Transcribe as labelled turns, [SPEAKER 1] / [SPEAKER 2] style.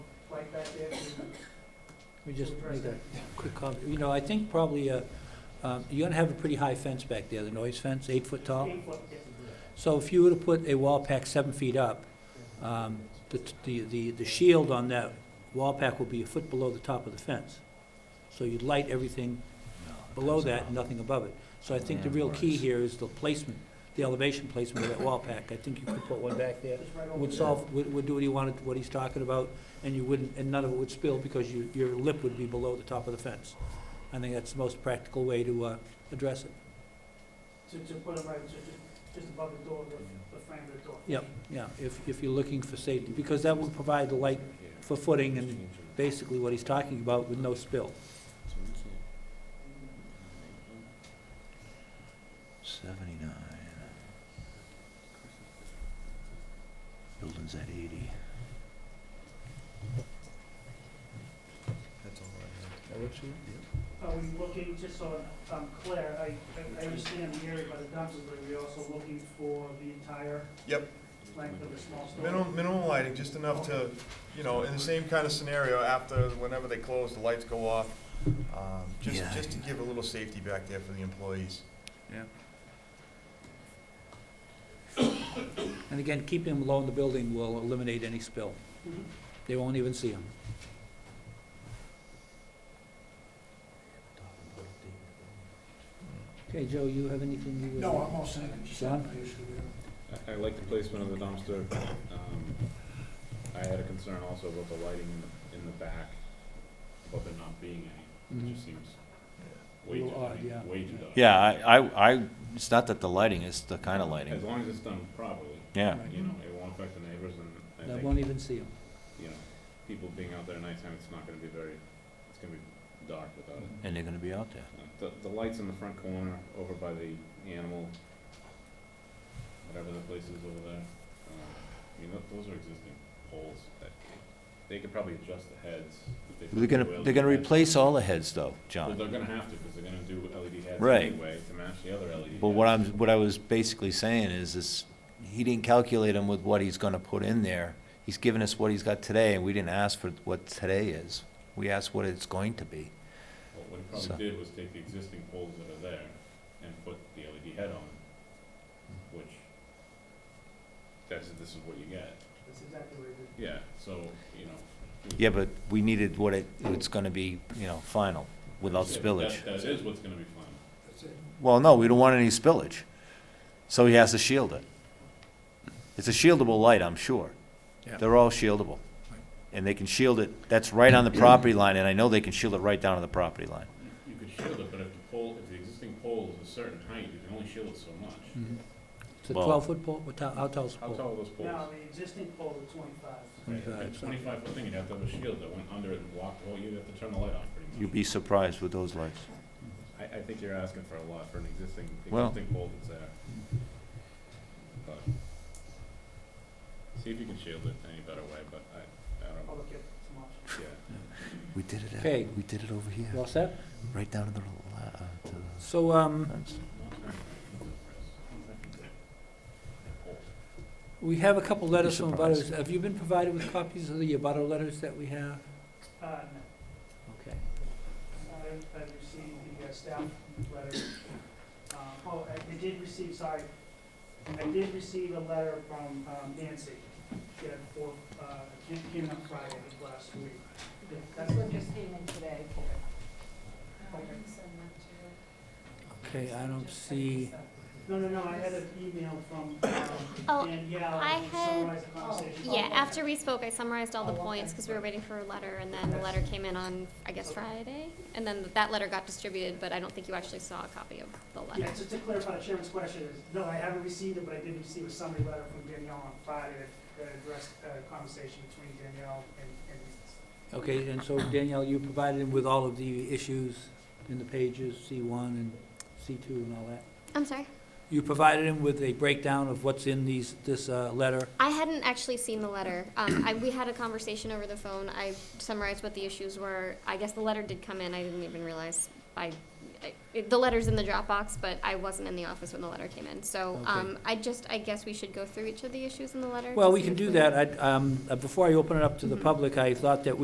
[SPEAKER 1] back after.
[SPEAKER 2] Let me just
[SPEAKER 1] Reverse
[SPEAKER 2] make a
[SPEAKER 1] that.
[SPEAKER 2] quick comment. You know, I think probably, uh, um, you're gonna have a pretty high fence back there, the noise fence, eight foot tall.
[SPEAKER 1] Eight foot, yes.
[SPEAKER 2] So if you were to put a wall pack seven feet up, um, the, the- the, the shield on that wall pack will be a foot below the top of the fence. So you'd light everything below that and nothing above it. So I think the real key here is the placement, the elevation placement of that wall pack. I think you could put one back there.
[SPEAKER 1] Just right over
[SPEAKER 2] Would
[SPEAKER 1] there.
[SPEAKER 2] solve, would, would do what he wanted, what he's talking about, and you wouldn't, and none of it would spill because you, your lip would be below the top of the fence. I think that's the most practical way to, uh, address it.
[SPEAKER 1] To, to put it right, just, just above the door, the, the frame of the door.
[SPEAKER 2] Yep, yeah, if, if you're looking for safety, because that would provide the light for footing and basically what he's talking about with no spill.
[SPEAKER 3] Seventy-nine. Building's at eighty. That's all I have.
[SPEAKER 1] Are we looking, just so I'm clear, I, I- I understand the area by the dumpster, but we are also looking for the entire
[SPEAKER 4] Yep.
[SPEAKER 1] length of the small store?
[SPEAKER 4] Minimum, minimum lighting, just enough to, you know, in the same kind of scenario, after, whenever they close, the lights go off. Um, Just,
[SPEAKER 3] Yeah.
[SPEAKER 4] just to give a little safety back there for the employees.
[SPEAKER 2] And again, keeping him low in the building will eliminate any spill.
[SPEAKER 1] Mhm.
[SPEAKER 2] They won't even see him. Okay, Joe, you have anything you would?
[SPEAKER 5] No, I'm all set.
[SPEAKER 2] John?
[SPEAKER 6] I, I like the placement of the dumpster. Um, I had a concern also about the lighting in the, in the back, about there not being any.
[SPEAKER 2] Mhm.
[SPEAKER 6] It just seems way too,
[SPEAKER 2] Little
[SPEAKER 6] I
[SPEAKER 2] odd,
[SPEAKER 6] mean,
[SPEAKER 2] yeah.
[SPEAKER 6] way too dark.
[SPEAKER 3] Yeah, I, I, I, it's not that the lighting, it's the kind of
[SPEAKER 6] As
[SPEAKER 3] lighting,
[SPEAKER 6] long as it's done properly,
[SPEAKER 3] yeah.
[SPEAKER 2] Right.
[SPEAKER 6] you know, it won't affect the neighbors and
[SPEAKER 2] They
[SPEAKER 6] I
[SPEAKER 2] won't
[SPEAKER 6] think,
[SPEAKER 2] even see him.
[SPEAKER 6] you know, people being out there at nighttime, it's not gonna be very, it's gonna be dark without it.
[SPEAKER 2] Mm-hmm.
[SPEAKER 3] And they're gonna be out there.
[SPEAKER 6] Uh, The, the lights in the front corner over by the animal, whatever the place is over there, um, I mean, tho- those are existing poles that, they could probably adjust the heads if they.
[SPEAKER 3] They're gonna,
[SPEAKER 6] felt
[SPEAKER 3] they're gonna
[SPEAKER 6] the LED heads.
[SPEAKER 3] replace all the heads though,
[SPEAKER 6] Well,
[SPEAKER 3] John.
[SPEAKER 6] they're gonna have to, because they're gonna do LED heads
[SPEAKER 3] Right.
[SPEAKER 6] anyway to match the other E LED.
[SPEAKER 3] But what
[SPEAKER 6] heads.
[SPEAKER 3] I'm, what I was basically saying is, is he didn't calculate them with what he's gonna put in there. He's given us what he's got today, and we didn't ask for what today is. We asked what it's going to be.
[SPEAKER 6] Well, What he
[SPEAKER 3] So-
[SPEAKER 6] probably did was take the existing poles that are there and put the LED head on, which, that's, this is what you get.
[SPEAKER 1] That's exactly what it is.
[SPEAKER 6] Yeah, so, you know. we-
[SPEAKER 3] Yeah, but we needed what it, it's gonna be, you know, final, without
[SPEAKER 6] That-
[SPEAKER 3] spillage.
[SPEAKER 6] That is what's gonna be fun.
[SPEAKER 3] Well, no, we don't want any spillage. So he has to shield it. It's a shieldable light, I'm sure.
[SPEAKER 2] Yeah.
[SPEAKER 3] They're all shieldable. And they can shield it, that's right on the property line, and I know they can shield it right down to the property line.
[SPEAKER 6] You could shield it, but if the pole, if the existing pole is a certain height, you can only shield it so much.
[SPEAKER 2] It's a
[SPEAKER 3] Well-
[SPEAKER 2] twelve-foot pole, what ti- how tall's the
[SPEAKER 6] How
[SPEAKER 2] pole?
[SPEAKER 6] tall are those
[SPEAKER 1] Now,
[SPEAKER 6] poles?
[SPEAKER 1] the existing pole is twenty-five.
[SPEAKER 6] Right, if it's
[SPEAKER 2] Twenty-five, so-
[SPEAKER 6] Twenty-five foot thing, you'd have to have a shield that went under it and blocked, well, you'd have to turn the light off pretty
[SPEAKER 3] You'd
[SPEAKER 6] much.
[SPEAKER 3] be surprised with those lights.
[SPEAKER 6] I, I think you're asking for a lot for an existing,
[SPEAKER 3] Well-
[SPEAKER 6] existing pole that's there. But, see if you can shield it any better way, but I, I don't,
[SPEAKER 1] Public, it's much.
[SPEAKER 6] yeah.
[SPEAKER 3] We did it,
[SPEAKER 2] Okay.
[SPEAKER 3] at- we did it over here,
[SPEAKER 2] You all set?
[SPEAKER 3] right down to the, la- uh, to the
[SPEAKER 2] So, um,
[SPEAKER 3] fence.
[SPEAKER 2] we have a couple letters
[SPEAKER 3] You'd
[SPEAKER 2] from
[SPEAKER 3] be
[SPEAKER 2] butters.
[SPEAKER 3] surprised.
[SPEAKER 2] Have you been provided with copies of the butter letters that we have?
[SPEAKER 1] Uh, no,
[SPEAKER 2] Okay.
[SPEAKER 1] I, I received the uh, staff letter. Uh, oh, I I did receive, sorry, I did receive a letter from um, Nancy. She had four, uh, came, came on Friday of last week. Yeah, That's what,
[SPEAKER 7] just came in today.
[SPEAKER 2] Okay, I don't see.
[SPEAKER 1] no, no, no, I had an email from, um,
[SPEAKER 8] Oh,
[SPEAKER 1] Danielle.
[SPEAKER 8] I
[SPEAKER 1] to
[SPEAKER 8] had-
[SPEAKER 1] Summarize the conversation.
[SPEAKER 8] Yeah, after we spoke, I summarized all the points because we were waiting for a letter, and then the letter came in on, I guess, Friday. And then that letter got distributed, but I don't think you actually saw a copy of the letter.
[SPEAKER 1] Yeah, so to clarify the chairman's question, is, no, I haven't received it, but I did receive a summary letter from Danielle on Friday that addressed a conversation between Danielle and, and
[SPEAKER 2] Okay, and so Danielle, you provided him with all of the issues in the pages, C one and C two and all that?
[SPEAKER 8] I'm sorry.
[SPEAKER 2] You provided him with a breakdown of what's in these, this uh, letter?
[SPEAKER 8] I hadn't actually seen the letter. Um, I, we had a conversation over the phone. I summarized what the issues were. I guess the letter did come in. I didn't even realize. I, I it- the letter's in the Dropbox, but I wasn't in the office when the letter came in. So um, I just, I guess we should go through each of the issues in the letter.
[SPEAKER 2] Well,
[SPEAKER 8] to
[SPEAKER 2] we
[SPEAKER 8] see
[SPEAKER 2] can
[SPEAKER 8] if
[SPEAKER 2] do that. I, um, uh, before I open it up to the
[SPEAKER 8] Mhm.
[SPEAKER 2] public, I thought that we.